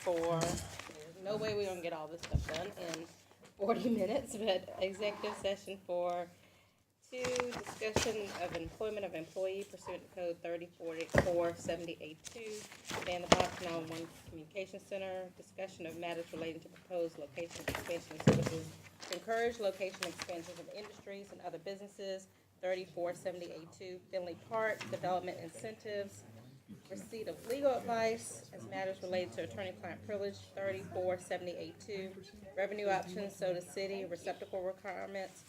for, there's no way we're gonna get all this stuff done in forty minutes, but executive session for two, discussion of employment of employee pursuant to code thirty forty-four seventy-eight two, and the Boston Island One Communication Center, discussion of matters relating to proposed location expansion services, to encourage location expansions of industries and other businesses, thirty-four seventy-eight two, Finley Park, development incentives, receipt of legal advice as matters related to attorney-client privilege, thirty-four seventy-eight two, revenue options, soda city, receptacle requirements,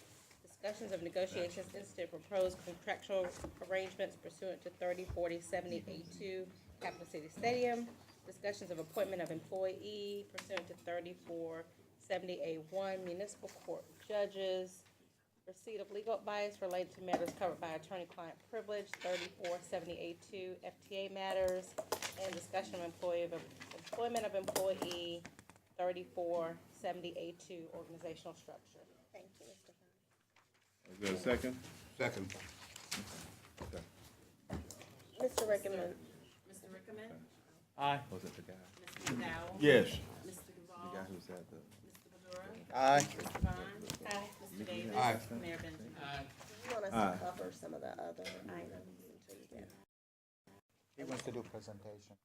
discussions of negotiations instead of proposed contractual arrangements pursuant to thirty forty seventy-eight two, Capital City Stadium, discussions of appointment of employee pursuant to thirty-four seventy-eight one, municipal court judges, receipt of legal advice related to matters covered by attorney-client privilege, thirty-four seventy-eight two FTA matters, and discussion of employee of, employment of employee, thirty-four seventy-eight two organizational structure. Thank you, Mr. Hunt. Is there a second? Second. Mr. Rickman. Mr. Rickman? Aye. Was it the guy? Mr. McDowell? Yes. Mr. The guy Duval? who was at the. Mr. Bedura? Aye. Mr. Vaughn? Aye. Mr. Davis? Aye. Mayor Benjamin? You want us Aye. to cover some of the other items until you get He wants to do presentation.